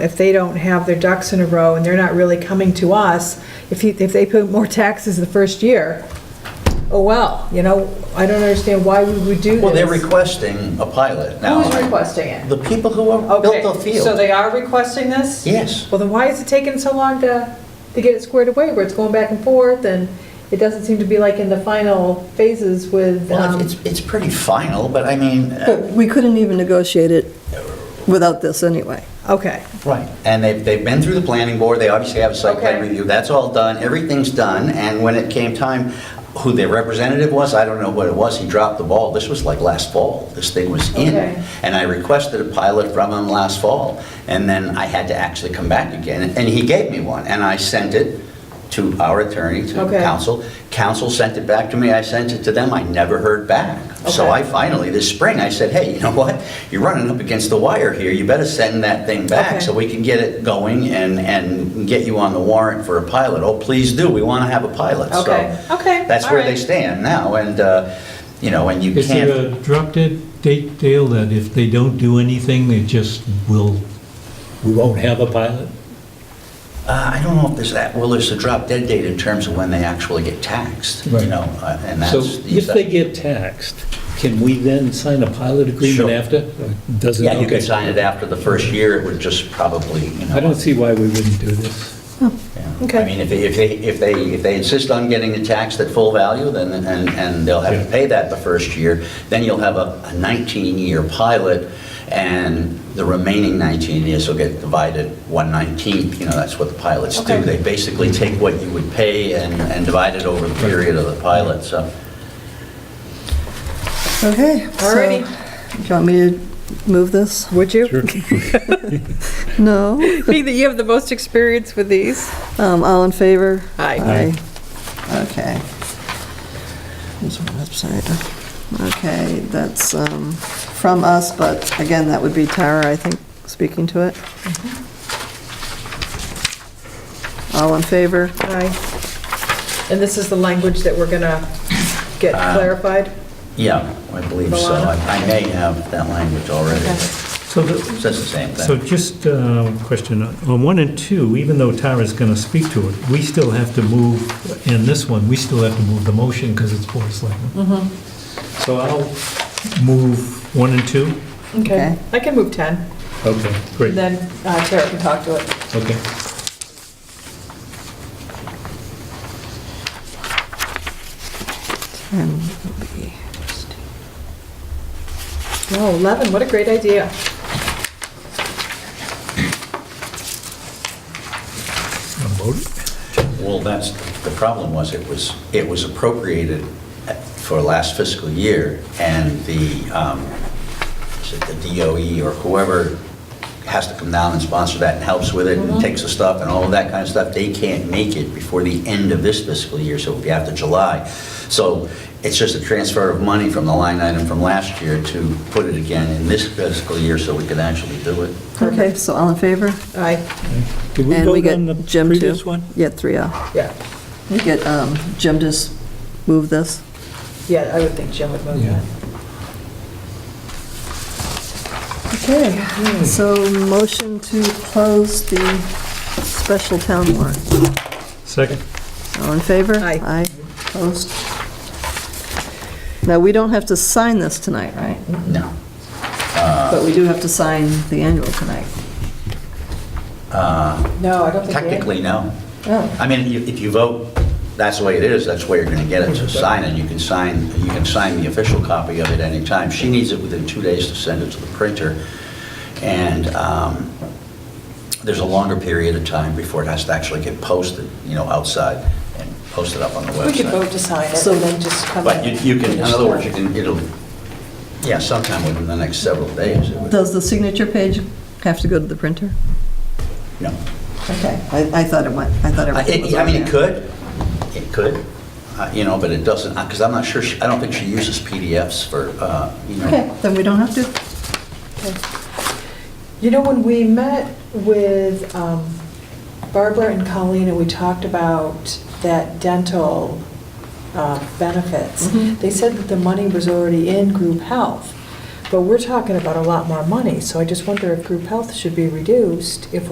If they don't have their ducks in a row and they're not really coming to us, if you, if they pay more taxes the first year, oh well, you know, I don't understand why we would do this. Well, they're requesting a pilot now. Who's requesting it? The people who have Okay, built the field. So they are requesting this? Yes. Well, then why is it taking so long to, to get it squared away, where it's going back and forth, and it doesn't seem to be like in the final phases with, Well, um, it's, it's pretty final, but I mean, uh, But we couldn't even negotiate it without this anyway. okay, right. And they've, they've been through the planning board, they obviously have a site plan Okay. review, that's all done, everything's done. And when it came time, who their representative was, I don't know what it was, he dropped the ball. This was like last fall, this thing was in. Okay. And I requested a pilot from him last fall. And then I had to actually come back again, and he gave me one. And I sent it to our attorney, to Okay. counsel. council. Council sent it back to me, I sent it to them, I never heard back. So Okay. I finally, this spring, I said, hey, you know what? You're running up against the wire here, you better send that thing Okay. back so we can get it going and, and get you on the warrant for a pilot. Oh, please do, we want to have a pilot. So Okay. Okay. That's All where they right. stand now, and, uh, you know, and you Is can't. there a drop dead date, Dale, that if they don't do anything, they just will, we won't have a pilot? Uh, I don't know if there's that, well, there's a drop dead date in terms of when they actually get taxed, you Right. know, uh, and So that's. the- if they get taxed, can we then sign a pilot Sure. agreement after? Or Doesn't, Yeah, you okay. could sign it after the first year, it would just probably, you know. I don't see why we wouldn't do this. Yeah. Okay. I mean, if they, if they, if they, if they insist on getting it taxed at full value, then, and, and they'll have to Yeah. pay that the first year, then you'll have a a 19-year pilot, and the remaining 19 years will get divided 1/19th, you know, that's what the pilots do. Okay. They basically take what you would pay and, and divide it over the period of the pilot, so. Okay. so- Alrighty. Do you want me to move this? would you? No? Being that you have the most experience with these. Um, All in favor? Aye. Aye. Okay. There's one upside down. Okay, that's um, from us, but again, that would be Tara, I think, speaking to it. All in favor? Aye. And this is the language that we're gonna get clarified? Yeah, I believe so. I I may have that language already, Okay. but So the, it says the same so thing. just a question, uh, on one and two, even though Tara's going to speak to it, we still have to move, in this one, we still have to move the motion because it's Board of Mm-hmm. Selectmen. So I'll move one and two? Okay. I can move 10, Okay, and great, then uh, Tara can talk to it. okay. And it'll be- Oh, 11, what a great idea. I'll vote. Well, that's, the problem was, it was, it was appropriated for last fiscal year, and the, um, is it the DOE or whoever has to come down and sponsor that and helps with it and takes the stuff and all of that kind of stuff, they can't make it before the end of this fiscal year, so it'll be after July. So it's just a transfer of money from the line item from last year to put it again in this fiscal year so we can actually do it. Okay, so all in favor? Aye, Did we And we vote on the get Jim too. previous one? Yeah, three oh. yeah, We get, um, Jim just move this. yeah, I would think Jim would move Yeah. that. Okay, so motion to close the special town warrant. Second? All in favor? Aye. Aye, opposed? Now, we don't have to sign this tonight, right? No. But we do have to sign the annual tonight. No, I don't think. we- Technically, no. Oh. I mean, you- if you vote, that's the way it is, that's where you're going to get it, to sign it, you can sign, you can sign the official copy of it anytime. She needs it within two days to send it to the printer, and um, there's a longer period of time before it has to actually get posted, you know, outside and posted up on the website. We could vote to sign it So- and then just come But in. you you can, in other words, you can, it'll, yeah, sometime within the next several days. it would- Does the signature page have to go to the printer? No. Okay, I, I thought it went, I thought I everything was it- I on mean, it there. could, it could, uh, you know, but it doesn't, because I'm not sure, she- I don't think she uses PDFs for, uh, you Okay, know. then we don't have to, You know, when we met with um, Barbara and Colleen, and we talked about that dental uh, benefits, Mhm. they said that the money was already in group health, but we're talking about a lot more money, so I just wonder if group health should be reduced if